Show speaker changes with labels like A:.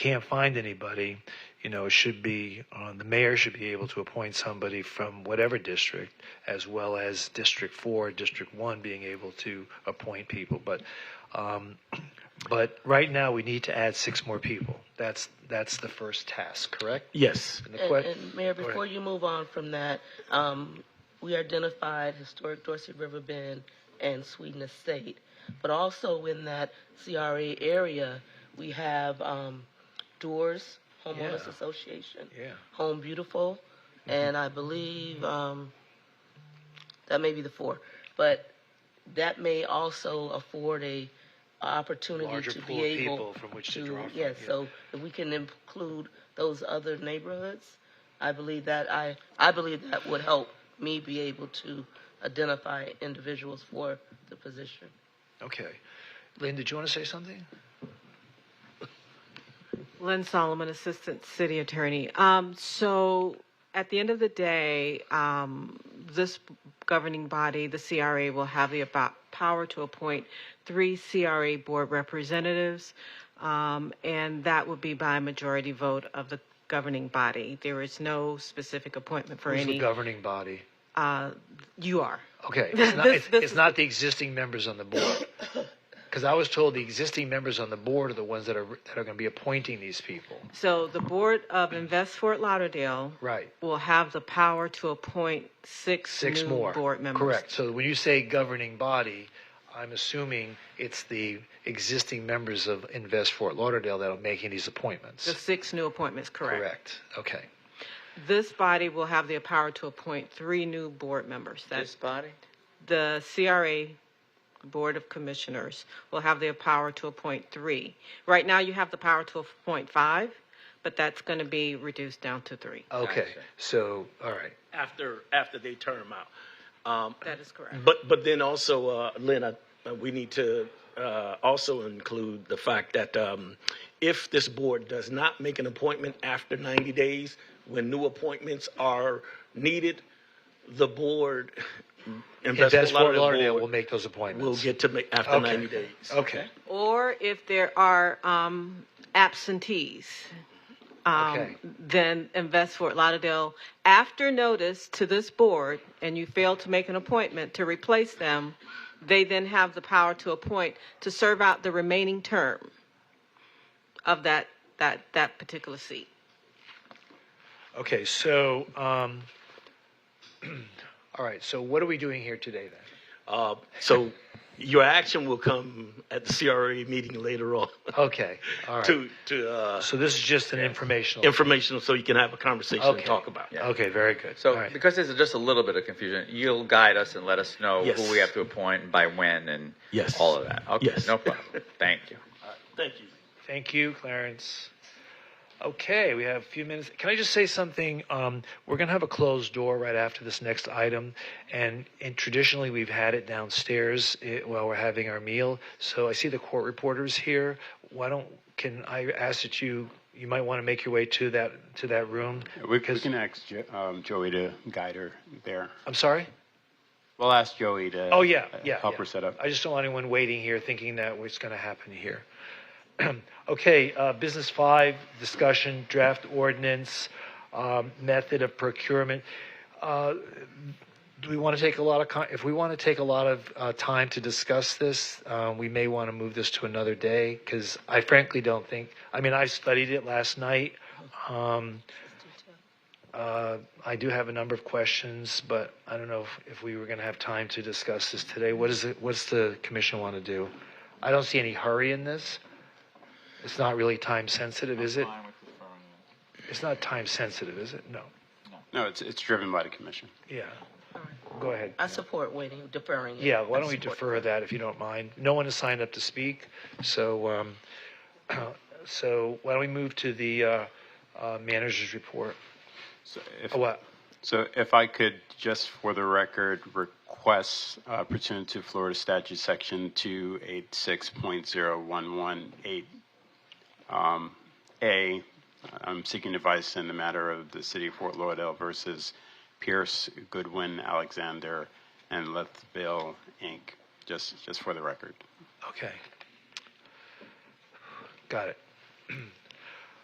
A: can't find anybody, you know, it should be, uh, the mayor should be able to appoint somebody from whatever district, as well as District Four, District One being able to appoint people, but, um, but right now, we need to add six more people. That's, that's the first task, correct?
B: Yes.
A: And the
C: And,
A: que-
C: and Mayor,
A: Go
C: before
A: ahead.
C: you move on from that, um, we identified historic Dorsey River Bend and Sweden Estate, but also in that CRA area, we have um, Doors Homeowners
A: Yeah.
C: Association,
A: Yeah.
C: Home Beautiful, and I believe um, that may be the four, but that may also afford a opportunity
A: Larger
C: to
A: pool
C: be
A: of
C: able
A: people from which to
C: to-
A: draw from.
C: Yes, so if we can include those other neighborhoods, I believe that, I, I believe that would help me be able to identify individuals for the position.
A: Okay. Lynn, did you want to say something?
D: Lynn Solomon, Assistant City Attorney. Um, so at the end of the day, um, this governing body, the CRA, will have the abo- power to appoint three CRA board representatives, um, and that would be by majority vote of the governing body. There is no specific appointment for
A: Who's the
D: any.
A: governing body?
D: uh, you are.
A: Okay, it's not,
D: This-
A: it's,
D: this
A: it's
D: is-
A: not the existing members on the board. Because I was told the existing members on the board are the ones that are, that are going to be appointing these people.
D: So the board of Invest Fort Lauderdale
A: Right.
D: will have the power to appoint six,
A: Six
D: new
A: more.
D: board members.
A: Correct. So when you say governing body, I'm assuming it's the existing members of Invest Fort Lauderdale that are making these
D: The
A: appointments.
D: six new appointments, correct.
A: Correct. Okay.
D: This body will have the power to appoint three new board members. That's
E: This body?
D: the CRA Board of Commissioners will have the power to appoint three. Right now, you have the power to appoint five, but that's going to be reduced down to three.
E: Uh,
A: Okay. So, all right.
B: After, after they term out. Um,
D: That is correct.
B: But, but then also, uh, Lynn, uh, we need to uh, also include the fact that um, if this board does not make an appointment after 90 days, when new appointments are needed, the board, Invest
A: Invest Fort Lauderdale
B: Board
A: will make those
B: will
A: appointments.
B: get to make, after
A: Okay.
B: 90 days.
A: Okay.
D: Or if there are um, absentees, um,
A: Okay.
D: then invest Fort Lauderdale after notice to this board, and you fail to make an appointment to replace them. They then have the power to appoint to serve out the remaining term of that that that particular seat.
A: Okay, so, um, all right, so what are we doing here today then?
B: Uh, So your action will come at the CRA meeting later on
A: Okay, all right.
B: to, to uh,
A: So this is just an informational.
B: informational, so you can have a conversation and
A: Okay.
B: talk about.
A: Okay, very good.
E: So,
A: All right.
E: because there's just a little bit of confusion, you'll guide us and let us know
B: Yes.
E: who we have to appoint and by when and
B: Yes.
E: all of that. Okay,
B: Yes.
E: no problem. Thank you.
B: Thank you.
A: Thank you, Clarence. Okay, we have a few minutes. Can I just say something? Um, we're going to have a closed door right after this next item, and, and traditionally we've had it downstairs eh, while we're having our meal. So I see the court reporters here. Why don't can I ask that you you might want to make your way to that to that room?
F: We we can ask Jo- um, Joey to guide her there.
A: I'm sorry.
F: We'll ask Joey to.
A: Oh yeah,
F: uh,
A: yeah.
F: Help
A: yeah.
F: her set up.
A: I just don't want anyone waiting here thinking that what's going to happen here. okay, uh, business five discussion draft ordinance um, method of procurement. Uh, do we want to take a lot of con- if we want to take a lot of uh, time to discuss this, uh, we may want to move this to another day because I frankly don't think. I mean, I studied it last night. Um, uh, I do have a number of questions, but I don't know if, if we were going to have time to discuss this today. What is it? What's the commission want to do? I don't see any hurry in this. It's not really time sensitive, is it? It's not time sensitive, is it? No.
F: No, it's it's driven by the commission.
A: Yeah. Go ahead.
C: I support waiting, deferring. it.
A: Yeah, why don't
C: I
A: we
C: support
A: defer that if you don't mind? No one has signed up to speak, so, um, so why don't we move to the, uh, uh, manager's report?
F: So if,
A: Oh, What?
F: so if I could just for the record request uh, pursuant to Florida Statute Section two eight six point zero one one eight um, A. I'm seeking advice in the matter of the city of Fort Lauderdale versus Pierce, Goodwin, Alexander, and Lethville Inc. Just just for the record.
A: Okay. Got it.